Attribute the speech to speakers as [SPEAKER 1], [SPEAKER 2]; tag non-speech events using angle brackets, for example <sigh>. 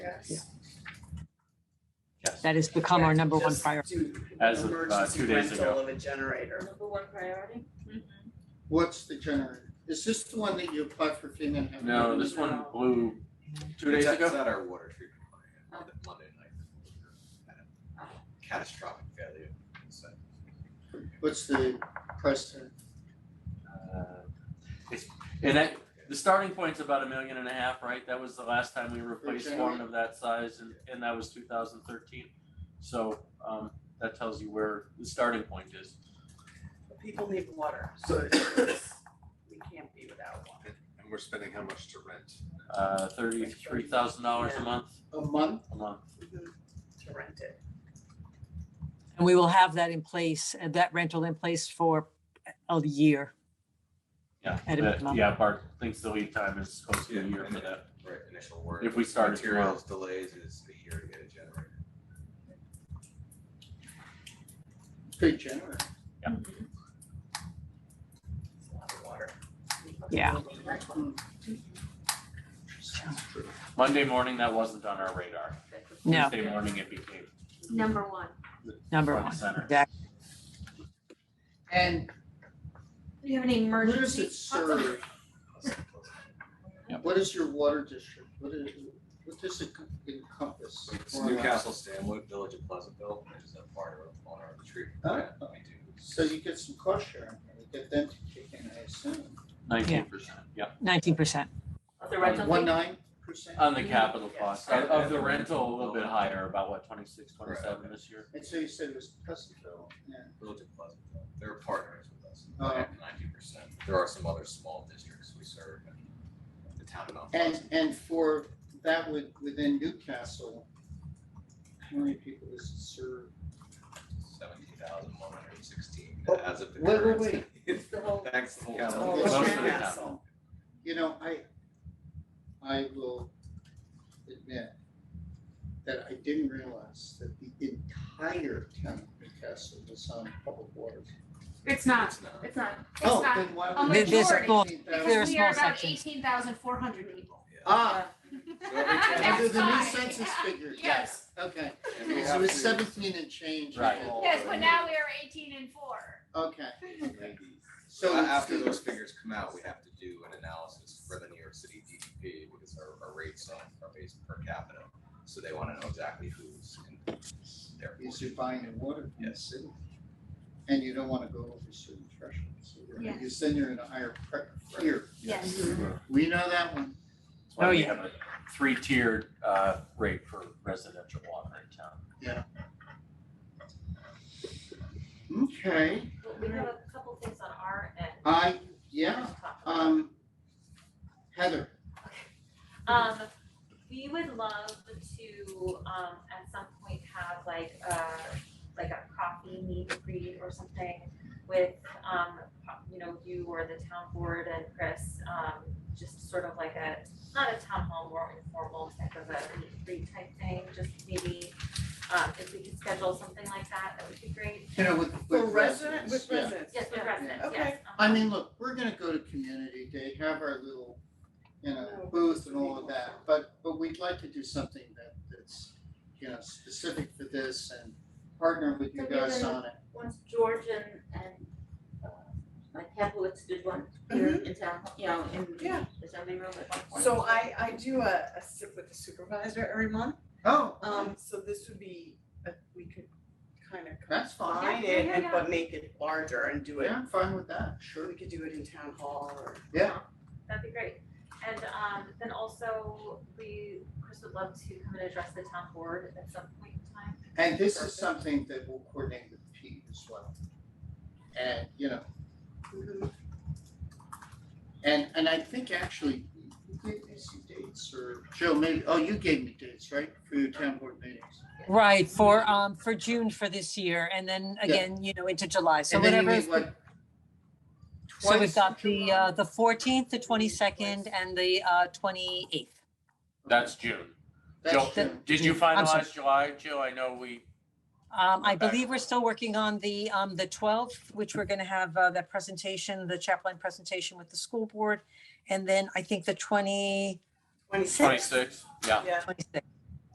[SPEAKER 1] Yes.
[SPEAKER 2] Yes.
[SPEAKER 3] That has become our number one
[SPEAKER 1] Just
[SPEAKER 3] priority.
[SPEAKER 1] do
[SPEAKER 2] As of, uh,
[SPEAKER 1] emergency
[SPEAKER 2] two days
[SPEAKER 1] rental
[SPEAKER 2] ago.
[SPEAKER 1] Of a generator.
[SPEAKER 4] Number one priority?
[SPEAKER 5] What's the generator? Is this the one that you applied for FEMA? and haven't
[SPEAKER 2] No,
[SPEAKER 5] gotten?
[SPEAKER 2] this one blew two days
[SPEAKER 6] It's at- It's
[SPEAKER 2] ago.
[SPEAKER 6] at our water treatment plant on the Monday night. Had a Catastrophic failure. So,
[SPEAKER 5] What's the price tag?
[SPEAKER 2] Uh, It's, and that, the starting point's about a million and a half, right? That was the last time we replaced
[SPEAKER 5] Okay.
[SPEAKER 2] one of that size and, and that was two thousand thirteen. So, um, that tells you where the starting point is.
[SPEAKER 1] People need water, so we can't be without one.
[SPEAKER 6] And and we're spending how much to rent?
[SPEAKER 2] Uh, thirty-three thousand dollars a
[SPEAKER 1] Yeah.
[SPEAKER 2] month,
[SPEAKER 5] A month?
[SPEAKER 2] a month.
[SPEAKER 1] To rent it.
[SPEAKER 3] And we will have that in place, uh, that rental in place for a year.
[SPEAKER 2] Yeah,
[SPEAKER 3] At a
[SPEAKER 2] that-
[SPEAKER 3] minimum.
[SPEAKER 2] yeah, Bart thinks the lead time is close to a
[SPEAKER 6] Yeah,
[SPEAKER 2] year
[SPEAKER 6] and
[SPEAKER 2] for
[SPEAKER 6] it-
[SPEAKER 2] that.
[SPEAKER 6] Right, initial work.
[SPEAKER 2] If we started tomorrow.
[SPEAKER 6] Materials delays is a year to get a generator.
[SPEAKER 5] Good generator.
[SPEAKER 1] It's a lot of water.
[SPEAKER 3] Yeah.
[SPEAKER 2] Monday morning, that wasn't on our radar.
[SPEAKER 3] No.
[SPEAKER 2] Tuesday morning, it became
[SPEAKER 4] Mm-hmm. Number one.
[SPEAKER 3] Number
[SPEAKER 2] front and
[SPEAKER 3] one.
[SPEAKER 2] center.
[SPEAKER 5] And
[SPEAKER 4] Do you have any
[SPEAKER 5] where does
[SPEAKER 4] emergency?
[SPEAKER 5] it serve?
[SPEAKER 2] Yep.
[SPEAKER 5] What is your water district? What is, what does it encompass?
[SPEAKER 6] It's Newcastle, Stanwood, Village of Pleasantville, which is a part of our water treatment plant. We do
[SPEAKER 5] So you get some cost sharing, you get them to kick in, I assume.
[SPEAKER 2] Nineteen percent, yeah.
[SPEAKER 3] Nineteen percent.
[SPEAKER 4] The rental
[SPEAKER 5] One
[SPEAKER 4] fee?
[SPEAKER 5] nine percent?
[SPEAKER 2] On the capital
[SPEAKER 1] Yes.
[SPEAKER 2] cost, of of the rental, a little bit higher, about what, twenty-six,
[SPEAKER 6] Right.
[SPEAKER 2] twenty-seven this year?
[SPEAKER 5] And so you said it was Pleasantville and
[SPEAKER 6] Village of Pleasantville, they're partners with us
[SPEAKER 5] Oh.
[SPEAKER 6] at ninety percent. There are some other small districts we serve in the town of Mount
[SPEAKER 5] And,
[SPEAKER 6] Pleasant.
[SPEAKER 5] and for that with, within Newcastle, how many people is it serve?
[SPEAKER 6] Seventeen thousand one hundred and sixteen
[SPEAKER 5] Oh,
[SPEAKER 6] as of the
[SPEAKER 5] wait, wait,
[SPEAKER 6] current.
[SPEAKER 5] wait. <laughs>
[SPEAKER 1] It's the whole.
[SPEAKER 6] Thanks,
[SPEAKER 2] Whole
[SPEAKER 6] Calum.
[SPEAKER 2] town.
[SPEAKER 5] Oh, Most of the
[SPEAKER 1] Newcastle.
[SPEAKER 5] You know, I, I will admit that I didn't realize that the entire town of Newcastle was on public water.
[SPEAKER 4] It's not,
[SPEAKER 6] It's not.
[SPEAKER 4] it's not, it's
[SPEAKER 5] Oh,
[SPEAKER 4] not.
[SPEAKER 5] then why
[SPEAKER 4] a
[SPEAKER 5] would?
[SPEAKER 4] There's a
[SPEAKER 3] small- there are
[SPEAKER 4] Because we are
[SPEAKER 3] small
[SPEAKER 4] about
[SPEAKER 3] sections.
[SPEAKER 4] eighteen thousand four hundred people.
[SPEAKER 5] Ah,
[SPEAKER 4] <laughs> That's
[SPEAKER 5] under the new
[SPEAKER 4] fine.
[SPEAKER 5] census
[SPEAKER 4] Yeah.
[SPEAKER 5] figures,
[SPEAKER 4] Yes,
[SPEAKER 5] yes, okay.
[SPEAKER 6] And we
[SPEAKER 5] So
[SPEAKER 6] have
[SPEAKER 5] it's
[SPEAKER 6] to-
[SPEAKER 5] seventeen and change.
[SPEAKER 2] Right.
[SPEAKER 5] people.
[SPEAKER 4] yes, but now we are eighteen and four.
[SPEAKER 5] Okay,
[SPEAKER 6] So
[SPEAKER 5] so.
[SPEAKER 6] after
[SPEAKER 5] it's-
[SPEAKER 6] those figures come out, we have to do an analysis for the New York City DDP because our, our rates on- are based per capita. So they wanna know exactly who's in their.
[SPEAKER 5] is you're buying the water from the
[SPEAKER 6] Yes.
[SPEAKER 5] city. And you don't wanna go over certain thresholds, so you're,
[SPEAKER 4] Yeah.
[SPEAKER 5] because then you're in a higher pre- tier,
[SPEAKER 4] Yes.
[SPEAKER 5] we know that one.
[SPEAKER 2] That's
[SPEAKER 3] Mm-hmm.
[SPEAKER 2] why
[SPEAKER 3] Oh,
[SPEAKER 2] we
[SPEAKER 3] yeah.
[SPEAKER 2] have a three-tiered uh rate for residential water in town.
[SPEAKER 5] Okay,
[SPEAKER 7] We have a couple things on our end.
[SPEAKER 5] I, yeah, um, Heather,
[SPEAKER 7] Um, we would love to, um, at some point have like a, like a coffee meet and greet or something with, um, you know, you or the town board and Chris, um, just sort of like a, not a town hall, more informal type of a meet and greet type thing, just maybe, um, if we could schedule something like that, that would be great.
[SPEAKER 5] you know, with,
[SPEAKER 1] For resident,
[SPEAKER 5] with residents,
[SPEAKER 1] with
[SPEAKER 5] yeah.
[SPEAKER 1] residents.
[SPEAKER 7] Yes, with residents,
[SPEAKER 1] Okay.
[SPEAKER 7] yes. um,
[SPEAKER 5] I mean, look, we're gonna go to community day, have our little, you
[SPEAKER 1] Oh,
[SPEAKER 5] know, booth and all of that, but, but we'd like to do something that, that's, you know, specific for this and partner with you
[SPEAKER 8] So you're
[SPEAKER 5] guys
[SPEAKER 8] gonna-
[SPEAKER 5] on it.
[SPEAKER 8] once George and and uh, like Capelitz did one here
[SPEAKER 4] Mm-hmm.
[SPEAKER 8] in town, you know, in
[SPEAKER 1] Yeah.
[SPEAKER 8] the assembly room at one point.
[SPEAKER 1] So I, I do a, a sip with the supervisor every month,
[SPEAKER 5] Oh,
[SPEAKER 1] um, so this would be, uh, we could kind of
[SPEAKER 5] that's fine,
[SPEAKER 1] combine
[SPEAKER 7] Yeah,
[SPEAKER 1] it
[SPEAKER 7] yeah,
[SPEAKER 1] and,
[SPEAKER 7] yeah.
[SPEAKER 1] but make it larger and do it,
[SPEAKER 5] yeah, I'm fine with that,
[SPEAKER 1] or
[SPEAKER 5] sure,
[SPEAKER 1] we could do it in town hall or.
[SPEAKER 5] yeah.
[SPEAKER 7] That'd be great. And um then also, we, Chris would love to come and address the town board at some point in time.
[SPEAKER 5] And this is something that we'll coordinate with Pete as well. And, you know, and, and I think actually, you gave me some dates or, Joe, maybe, oh, you gave me dates, right, for your town board meetings?
[SPEAKER 3] Right, for, um, for June for this year and then again, you know, into July. So
[SPEAKER 5] And then you
[SPEAKER 3] whatever.
[SPEAKER 5] meet, what?
[SPEAKER 3] So
[SPEAKER 5] twice
[SPEAKER 3] we've got
[SPEAKER 5] in
[SPEAKER 3] the,
[SPEAKER 5] July?
[SPEAKER 3] uh, the fourteenth, the twenty-second and the, uh, twenty-eighth.
[SPEAKER 2] That's June.
[SPEAKER 5] That's
[SPEAKER 2] Joe,
[SPEAKER 5] true.
[SPEAKER 2] Did you
[SPEAKER 3] I'm sorry.
[SPEAKER 2] finalize July, Joe? I know we,
[SPEAKER 3] Um, I
[SPEAKER 2] Okay.
[SPEAKER 3] believe we're still working on the, um, the twelfth, which we're gonna have, uh, that presentation, the chaplain presentation with the school board. And then I think the twenty,
[SPEAKER 1] Twenty-six.
[SPEAKER 2] twenty-six, yeah.
[SPEAKER 1] Yeah,
[SPEAKER 3] twenty-six,